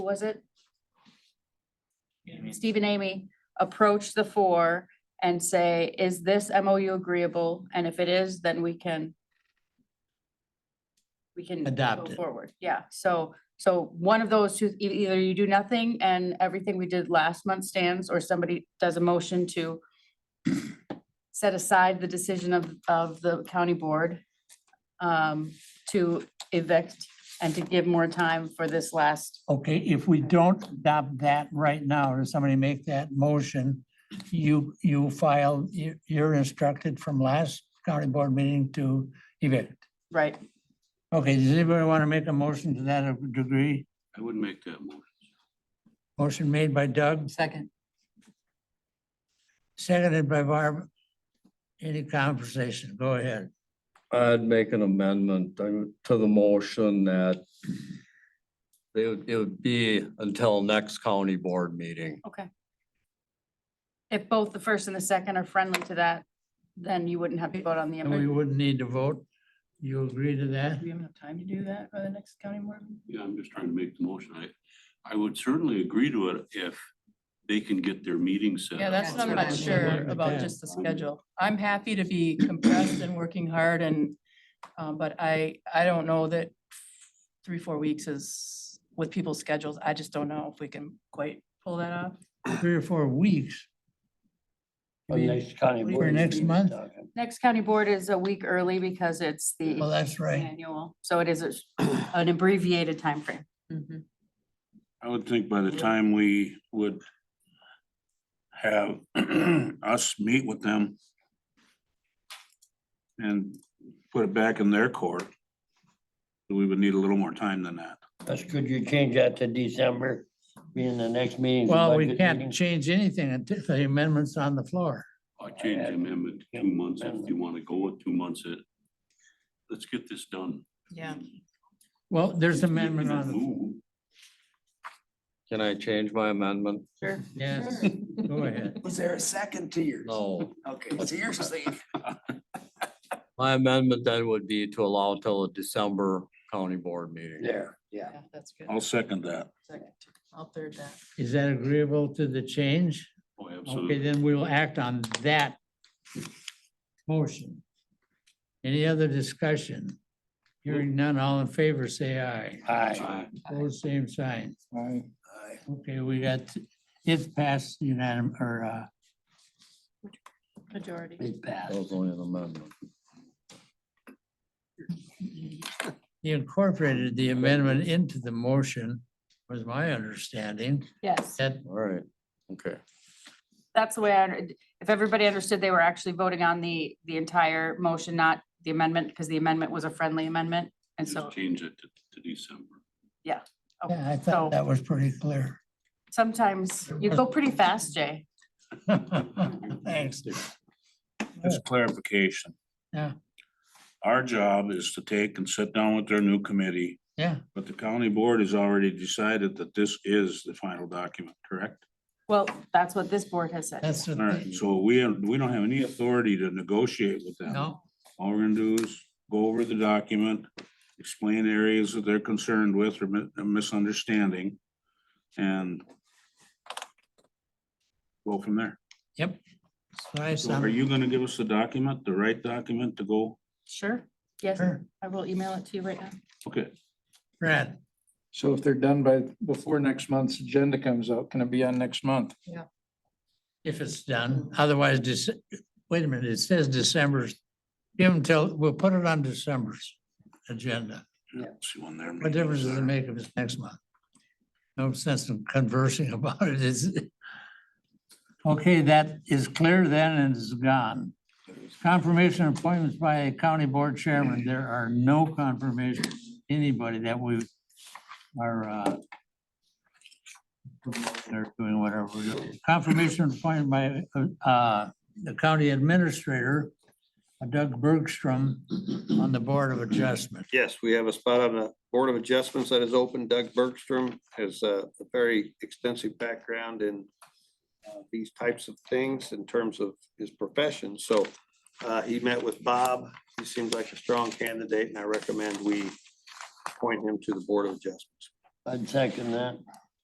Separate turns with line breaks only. was it?
Amy.
Steve and Amy approach the four and say, is this MOU agreeable? And if it is, then we can we can
Adopt
go
it.
Forward, yeah. So, so one of those two, e- either you do nothing and everything we did last month stands, or somebody does a motion to set aside the decision of, of the county board um, to evict and to give more time for this last,
Okay, if we don't adopt that right now, or somebody make that motion, you, you file, you- you're instructed from last county board meeting to evict.
right?
Okay, does anybody want to make a motion to that degree?
I would make that motion.
Motion made by Doug,
Second.
seconded by Barb. Any conversation? Go ahead.
I'd make an amendment to to the motion that they would, it would be until next county board meeting.
Okay. If both the first and the second are friendly to that, then you wouldn't have to vote on the
And we
amendment.
wouldn't need to vote. You agree to that?
Do we have enough time to do that by the next county board? meeting?
Yeah, I'm just trying to make the motion. I, I would certainly agree to it if they can get their meeting set.
Yeah,
up
that's
on
what I'm
their
not
own.
sure about,
Yeah.
just the schedule. I'm happy to be compressed and working hard and, um, but I, I don't know that three, four weeks is with people's schedules. I just don't know if we can quite pull that off.
Three or four weeks. You mean-
county
For board next meeting, uh, month?
Next county board is a week early because it's
Well,
the
that's right.
annual, so it is a sh- an abbreviated timeframe.
I would think by the time we would have us meet with them and put it back in their court, we would need a little more time than that.
That's, could you change that to December, being the next meeting? for
Well, we
budget
can't
meetings?
change anything until the amendment's on the floor.
I'll change the amendment to two months if you want to go with two months. It, let's get this done.
Yeah.
Well, there's amendment on the
Move.
Can I change my amendment?
Yes, go ahead.
Was there a second to yours?
No,
Okay, so yours is the
my amendment then would be to allow till a December county board meeting.
There,
yeah.
Yeah, that's good.
I'll second that.
Second. I'll third that.
Is that agreeable to the change?
Oh,
Okay,
absolutely.
then we will act on that motion. Any other discussion? Hearing none, all in favor, say aye.
aye.
Aye.
Opposed, same sign.
Aye.
Okay, we got, it's passed unanimous, or, uh,
Majority.
It
That
passed.
was only an amendment.
you incorporated the amendment into the motion, was my understanding.
Yes.
That,
All right, okay.
That's the way I, under- if everybody understood, they were actually voting on the, the entire motion, not the amendment, because the amendment was a friendly amendment. And so,
Just change it to, to December.
yeah, I
So-
thought that was pretty clear.
sometimes you go pretty fast, Jay.
Thanks.
Just clarification.
Yeah.
Our job is to take and sit down with their new committee,
Yeah,
but the county board has already decided that this is the final document, correct?
Well, that's what this board has said.
that's what.
All right,
they-
so we, we don't have any authority to negotiate with them.
No,
All we're gonna do is go over the document, explain areas that they're concerned with or mi- or misunderstanding, and go from there.
so I
So are
sum.
you gonna give us the document, the right document to go?
Sure. Yes,
Sure.
I will email it to you right now.
Okay,
Brad,
So if they're done by, before next month's agenda comes out, can it be on next month?
if it's done, otherwise, Dec- wait a minute, it says December's. Give them till, we'll put it on December's agenda.
see one there.
What difference does it make if it's next month? No sense in conversing about it, is. it? Okay, that is clear then and is gone. Confirmation appointments by a county board chairman. There are no confirmations, anybody that we are uh they're doing whatever. we're doing. Confirmation appointed by uh the county administrator, Doug Bergstrom, on the Board of Adjustment.
Yes, we have a spot on the Board of Adjustments that is open. Doug Bergstrom has uh, a very extensive background in uh, these types of things in terms of his profession. So uh, he met with Bob. He seems like a strong candidate, and I recommend we appoint him to the Board of Adjustments.
I'd second that.